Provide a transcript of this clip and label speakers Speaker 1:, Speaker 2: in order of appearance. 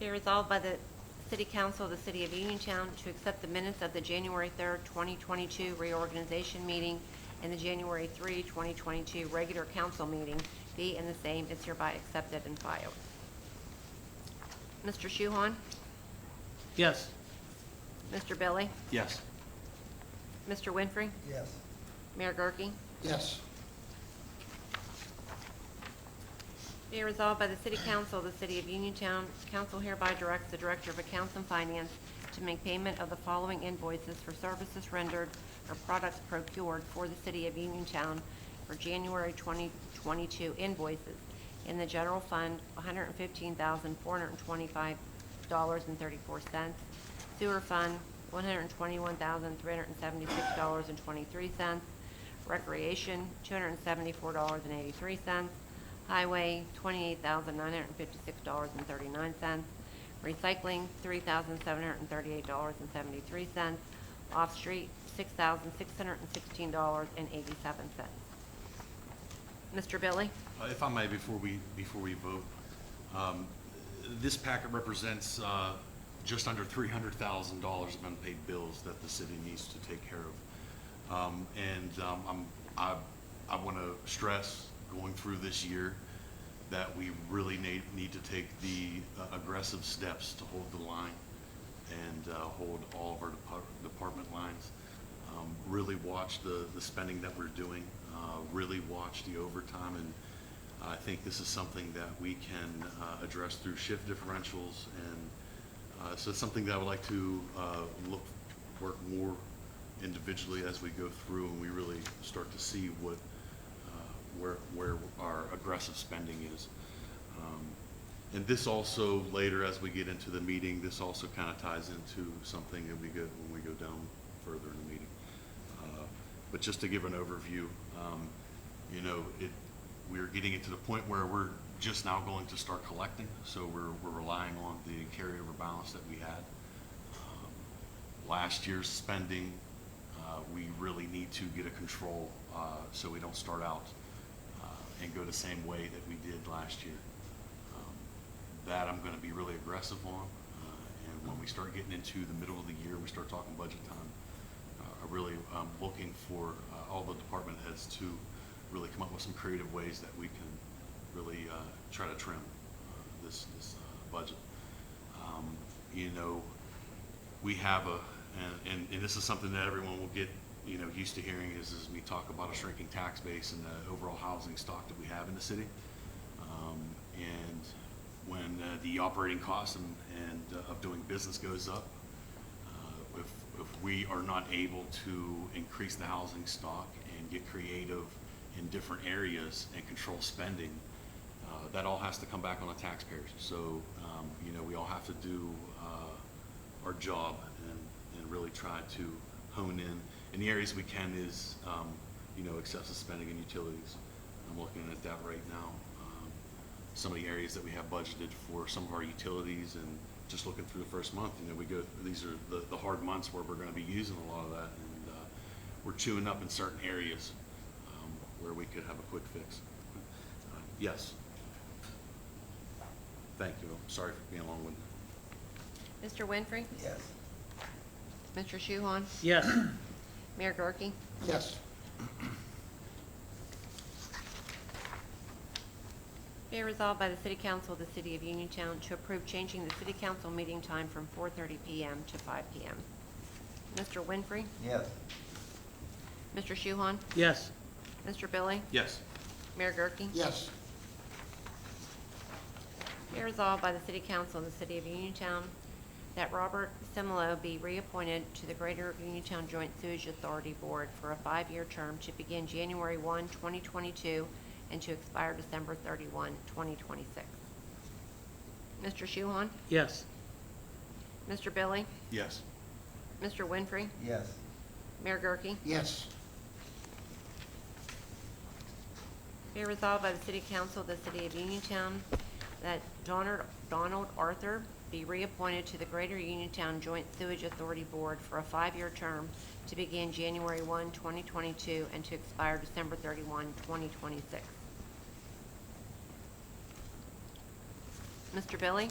Speaker 1: Be resolved by the City Council of the City of Uniontown to accept the minutes of the January 3rd, 2022 reorganization meeting and the January 3, 2022 regular council meeting be and the same is hereby accepted and filed. Mr. Shuhon?
Speaker 2: Yes.
Speaker 1: Mr. Billy?
Speaker 2: Yes.
Speaker 1: Mr. Winfrey?
Speaker 3: Yes.
Speaker 1: Mayor Gurke?
Speaker 3: Yes.
Speaker 1: Be it resolved by the City Council of the City of Uniontown, council hereby directs the Director of Accounts and Finance to make payment of the following invoices for services rendered or products procured for the City of Uniontown for January 2022 invoices. In the general fund, $115,425.34. Sewer fund, $121,376.23. Recreation, two hundred and seventy-four dollars and eighty-three cents. Highway, twenty-eight thousand nine hundred and fifty-six dollars and thirty-nine cents. Recycling, three thousand seven hundred and thirty-eight dollars and seventy-three cents. Off-street, six thousand six hundred and sixteen dollars and eighty-seven cents. Mr. Billy?
Speaker 4: Uh, If I may, before we, before we vote, um, this packet represents uh, just under $300,000 of unpaid bills that the city needs to take care of. Um, And um, I'm, I, I want to stress, going through this year, that we really need, need to take the uh, aggressive steps to hold the line and uh, hold all of our depart- department lines. Um, Really watch the, the spending that we're doing, uh, really watch the overtime, and I think this is something that we can uh, address through shift differentials, and uh, so it's something that I would like to uh, look, work more individually as we go through, and we really start to see what, uh, where, where our aggressive spending is. Um, And this also, later as we get into the meeting, this also kind of ties into something that we go, when we go down further in the meeting. Uh, But just to give an overview, um, you know, it, we're getting it to the point where we're just now going to start collecting, so we're, we're relying on the carryover balance that we had. Um, Last year's spending, uh, we really need to get a control, uh, so we don't start out, uh, and go the same way that we did last year. Um, That I'm gonna be really aggressive on, uh, and when we start getting into the middle of the year, we start talking budget time, uh, I really am looking for uh, all the department heads to really come up with some creative ways that we can really uh, try to trim uh, this, this uh, budget. Um, You know, we have a, and- and, and this is something that everyone will get, you know, used to hearing is, is we talk about a shrinking tax base and the overall housing stock that we have in the city. Um, And when uh, the operating cost and, and uh, of doing business goes up, uh, if, if we are not able to increase the housing stock and get creative in different areas and control spending, uh, that all has to come back on the taxpayers. So, um, you know, we all have to do uh, our job and, and really try to hone in. And the areas we can is, um, you know, excessive spending and utilities. I'm looking at that right now. Um, some of the areas that we have budgeted for some of our utilities and just looking through the first month, you know, we go, these are the, the hard months where we're gonna be using a lot of that and, uh, we're chewing up in certain areas, um, where we could have a quick fix. Uh, Yes. Thank you. Sorry for being long-winded.
Speaker 1: Mr. Winfrey?
Speaker 3: Yes.
Speaker 1: Mr. Shuhon?
Speaker 2: Yes.
Speaker 1: Mayor Gurke?
Speaker 3: Yes.
Speaker 1: Be it resolved by the City Council of the City of Uniontown to approve changing the City Council meeting time from 4:30 PM to 5 PM. Mr. Winfrey?
Speaker 3: Yes.
Speaker 1: Mr. Shuhon?
Speaker 2: Yes.
Speaker 1: Mr. Billy?
Speaker 4: Yes.
Speaker 1: Mayor Gurke?
Speaker 3: Yes.
Speaker 1: Be resolved by the City Council of the City of Uniontown that Robert Semelo be reappointed to the Greater Uniontown Joint Sewage Authority Board for a five-year term to begin January 1, 2022, and to expire December 31, 2026. Mr. Shuhon?
Speaker 2: Yes.
Speaker 1: Mr. Billy?
Speaker 4: Yes.
Speaker 1: Mr. Winfrey?
Speaker 3: Yes.
Speaker 1: Mayor Gurke?
Speaker 3: Yes.
Speaker 1: Be it resolved by the City Council of the City of Uniontown that Donard- Donald Arthur be reappointed to the Greater Uniontown Joint Sewage Authority Board for a five-year term to begin January 1, 2022, and to expire December 31, 2026. Mr. Billy?